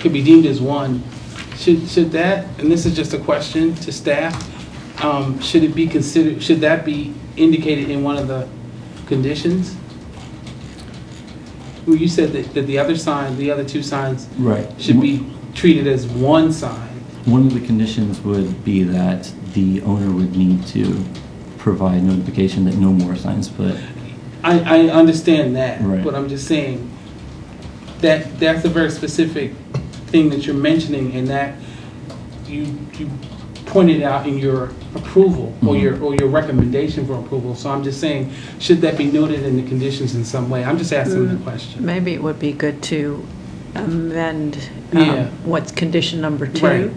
could be deemed as one. Should, should that, and this is just a question to staff, um, should it be considered, should that be indicated in one of the conditions? Well, you said that, that the other sign, the other two signs Right. should be treated as one sign. One of the conditions would be that the owner would need to provide notification that no more signs put. I, I understand that, Right. but I'm just saying, that, that's a very specific thing that you're mentioning, and that you, you pointed out in your approval, Mm-hmm. or your, or your recommendation for approval, so I'm just saying, should that be noted in the conditions in some way? I'm just asking the question. Maybe it would be good to amend um, Yeah. what's condition number two Right.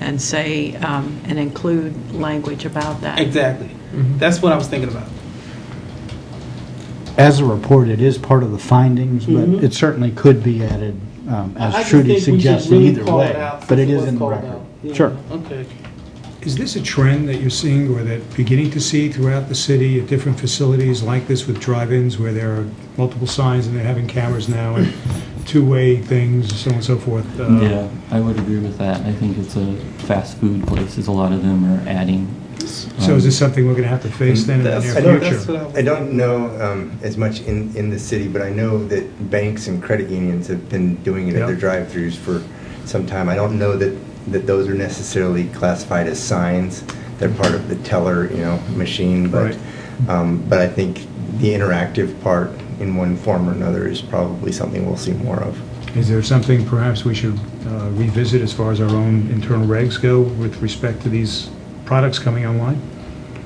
and say, um, and include language about that. Exactly, Mm-hmm. that's what I was thinking about. As a report, it is part of the findings, but Mhm. it certainly could be added, um, I as just Trudy think we should suggested, really either call it way. out But it since is was in the called record. out. Yeah, Sure. Okay. Is this a trend that you're seeing or that beginning to see throughout the city at different facilities like this with drive-ins where there are multiple signs and they're having cameras now and two-way things, so on and so forth? uh, Yeah, I would agree with that. I think it's a fast food places, a lot of them are adding. So is this something we're going to have to face then in the That's- near I don't- future? that's what was I don't know um, as much in, in the city, but I know that banks and credit unions have been doing it at their Yeah. drive-throughs for some time. I don't know that, that those are necessarily classified as signs. They're part of the teller, you know, machine, but, Right. um, but I think the interactive part in one form or another is probably something we'll see more of. Is there something perhaps we should uh, revisit as far as our own internal regs go with respect to these products coming online?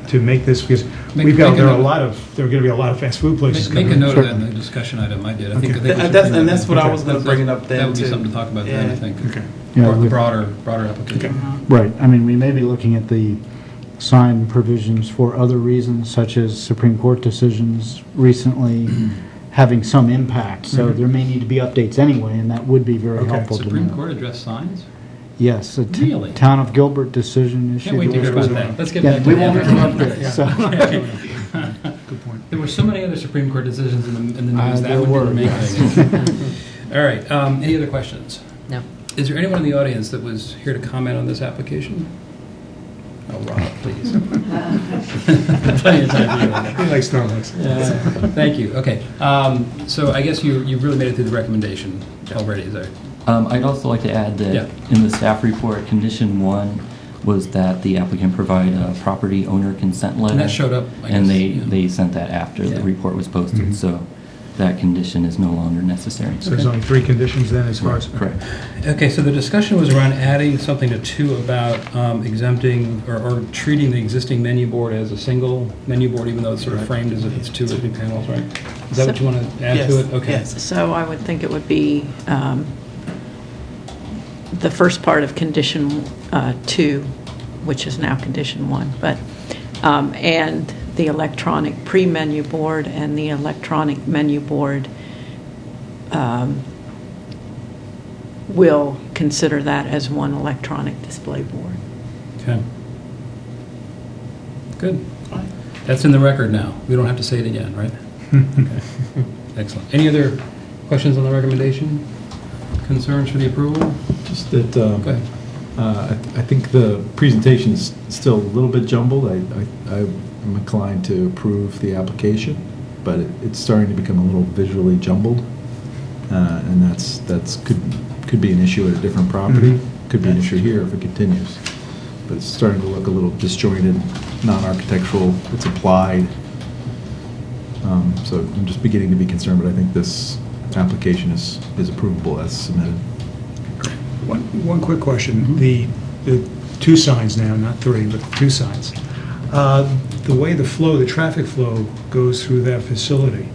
To make this, because Make- we've got, make a there are a note. lot of, there are going to be a lot of fast food places Make coming. make a note of that Certainly. in the discussion item I did. I think- I think we Th- should that's- bring that and that's in. what I was gonna bring it up then, That would be too. something to talk about then, Yeah. I think. Okay. Yeah, Bro- we- Broader, broader application. Right, I mean, we may be looking at the sign provisions for other reasons, such as Supreme Court decisions recently having some impact, so there may need to be updates anyway, and that would be very Okay. helpful to know. Mm-hmm. Supreme Court addressed signs? Yes, the t- Really? Town of Gilbert decision issued. Can't wait to hear about that. Let's get Yeah, back to we the won't other- Good point. There were so many other Supreme Court decisions in the, in the Uh, news there that one were, didn't make it. All right, um, any other questions? No. Is there anyone in the audience that was here to comment on this application? Oh, Rob, please. Plenty of time for you. He likes Starbucks. Uh, Thank you, okay. Um, So I guess you, you really made it through the recommendation already, is there? Um, I'd also like to add Yeah. that in the staff report, condition one was that the applicant provide a property owner consent letter. that showed up, I guess, And they, yeah. they sent that after the Yeah. Mm-hmm. report was posted, so that condition is no longer necessary. So there's only three conditions then as far as. Correct. Okay, so the discussion was around adding something to two about um, exempting or- or treating the existing menu board as a single menu board, even though it's sort of framed as if it's two or three panels, right? Is that what you want to add Yes, to it? Okay. yes. So I would think it would be um, the first part of condition uh, two, which is now condition one, but, um, and the electronic pre-menu board and the electronic menu board um, will consider that as one electronic display board. Okay. Good. That's in the record now. We don't have to say it again, right? Okay. Excellent. Any other questions on the recommendation? Concerns for the approval? Just that, uh, Go ahead. uh, I I think the presentation is still a little bit jumbled. I, I- I'm inclined to approve the application, but it- it's starting to become a little visually jumbled. uh, And that's, that's, could, could be an issue at a different property, could be an issue here if it continues. But it's starting to look a little disjointed, non-architectural, it's applied. Um, So I'm just beginning to be concerned, but I think this application is, is approvable as submitted. One, one quick question. The, the two signs now, not three, but two signs. Uh, The way the flow, the traffic flow goes through that facility,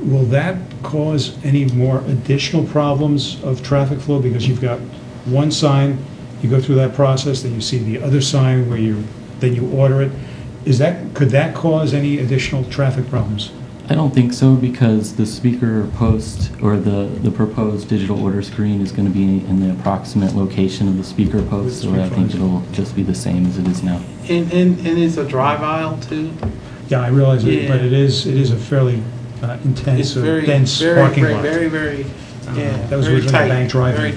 will that cause any more additional problems of traffic flow? Because you've got one sign, you go through that process, then you see the other sign where you, then you order it. Is that, could that cause any additional traffic problems? I don't think so because the speaker post or the, the proposed digital order screen is going to be in the approximate location of the speaker post, so I think it'll just be the same as it is now. And, and, and it's a drive aisle too? Yeah, I realize it, but Yeah. it is, it is a fairly uh, It's intense, uh, very, dense very, parking very, lot. Uh-huh. very, very, yeah. That was very originally a tight, bank drive-in. very